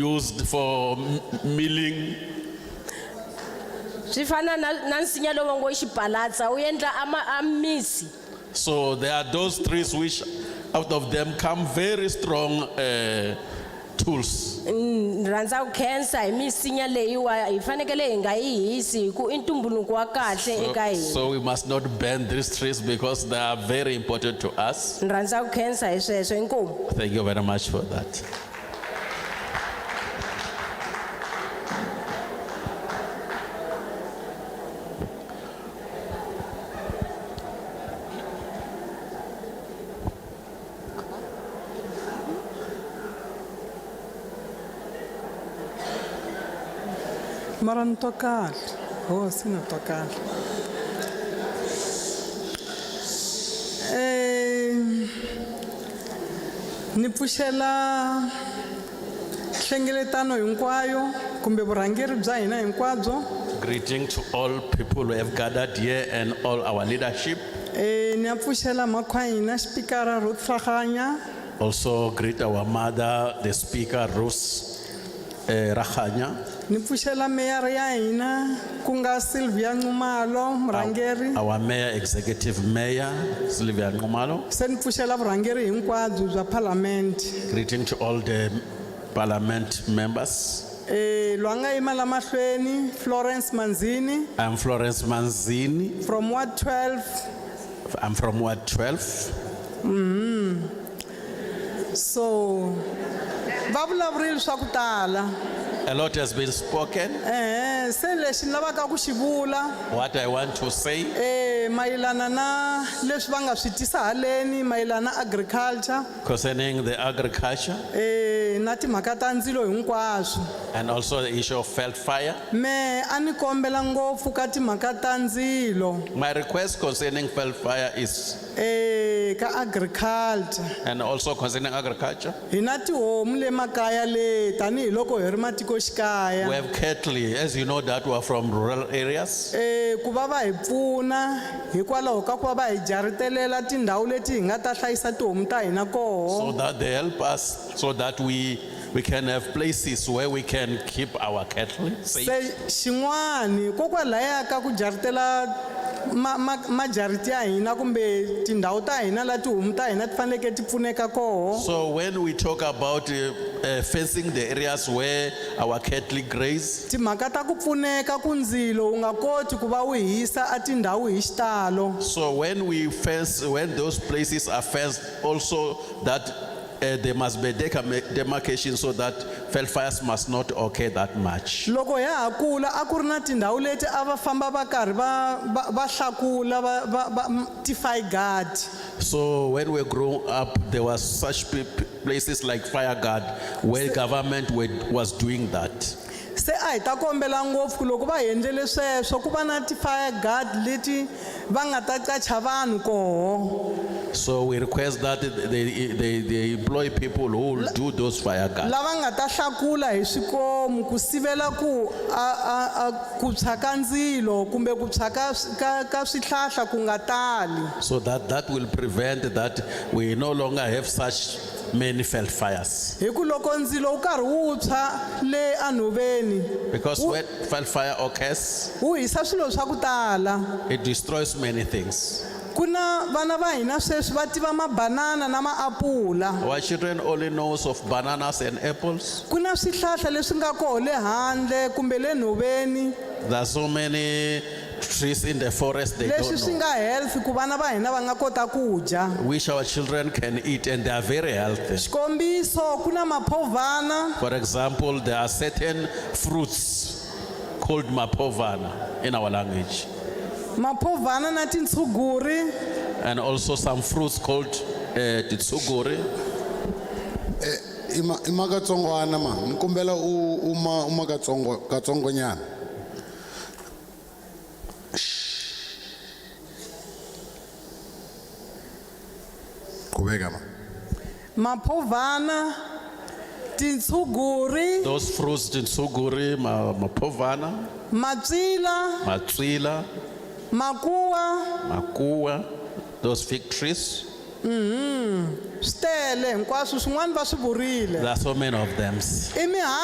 used for m- milling swi fana na na nsinya lowu va ngo i xibalatsa wu endla ama- a misi So there are those trees which out of them come very strong uh, tools. ni rhandza ku khensa hi misinya leyiwa hi fanekele hi nga yi hisi hi ku i ntumbuluko wa kahle eka So, hina so we must not burn these trees because they are very important to us. ni rhandza ku khensa hi sweswo inkomu Thank you very much for that. mara Oh, ni twa kahle hosi ni twa kahle Em, ni pfuxela nhlengeletano hinkwayo kumbe vurhangeri bya hina hinkwabyo Greeting to all people who have gathered here and all our leadership. um ni ya pfuxela makhwa hina xipikara ro tlhaganya Also greet our mother, the speaker, Rose uh, Rahanya, ni pfuxela meyara ya hina ku nga silvia nxumalo murhangeri our mayor, executive mayor, Sylvia Ngumalo. se ni pfuxela vurhangeri hinkwabyo bya palamende Greeting to all the parliament members. Eh, lwanga yima la mahlweni Florence Manzini I'm Florence Manzini. from Ward 12 I'm from Ward 12. so va vulavurile swa ku tala A lot has been spoken. ehe se lexi ni lavaka ku xi vula What I want to say eh mayelana na leswi va nga swi tisa haleni mayelana na agriculture concerning the agriculture eh na timhaka ta ndzilo hinkwaswo and also the issue of felt fire. me a ni kombela ngopfu ka timhaka ta ndzilo My request concerning felt fire is, eh ka agriculture and also concerning agriculture, hi na tihomu le makaya le tanihiloko hi ri matikoxikaya we have cattle. As you know, that we are from rural areas. Eh ku va va hi pfuna hikwalaho ka ku va va hi jaritelela tindhawu leti hi nga ta hlayisa tihomu ta hina So koho that they help us so that we, we can have places where we can keep our cattle safe. se xin'wani kokwalaya ka ku jaritela ma- ma- majariti ya hina kumbe tindhawu ta hina la tihomu ta hina ti faneleke ti pfuneka koho So when we talk about uh, uh, fencing the areas where our cattle graze, timhaka ta ku pfuneka ku ndzilo wu nga koti ku va wu hisa a tindhawu hi xitalo So when we fence, when those places are fenced, also that uh, there must be decam- demarcation so that fell fires must not occur that much. loko ya ha kula a ku ri na tindhawu leti a va famba va karhi va va- va hlakula va- va- va m- ti-figard So when we grew up, there was such p- p- places like fire guard where government were, was doing that. se a hi ta kombela ngopfu ku loko va hi endlele sweswo ku va na ti-fire guard leti va nga ta qacha vanhu koho So we request that they, they, they employ people who will do those fire guards. lava nga ta hlakula hi swikomu ku sivela ku a, a, a ku tshwa ka ndzilo kumbe ku tshwa ka, swi- ka, ka swihlahla ku nga tali So that, that will prevent that we no longer have such many fell fires. hi ku loko ndzilo wu karhi wu tshwa le anhoveni Because when fell fire occurs, wu hisa swilo swa ku tala It destroys many things. ku na vana va hina sweswi va tiva mabanana na maapula Our children only knows of bananas and apples. ku na swihlahla leswi nga koho le handle kumbe le nhoveni There are so many trees in the forest they leswi don't swi know. nga health ku vana va hina va nga kota ku dya Which our children can eat and they are very healthy. xikombiso ku na maphovhana For example, there are certain fruits called mapovana in our language, maphovhana na tintshuguri and also some fruits called uh, titsuguri. ima ima katsongwana ma nikumbela u uma uma katsongo katsongonyana qhubeka ma maphovhana tintshuguri Those fruits, titsuguri, ma- mapovana, matswila matrila, makuwa makua, those fig trees. swi tele hinkwaswo swin'wana va swi vurile There are so many of them. i mihandzu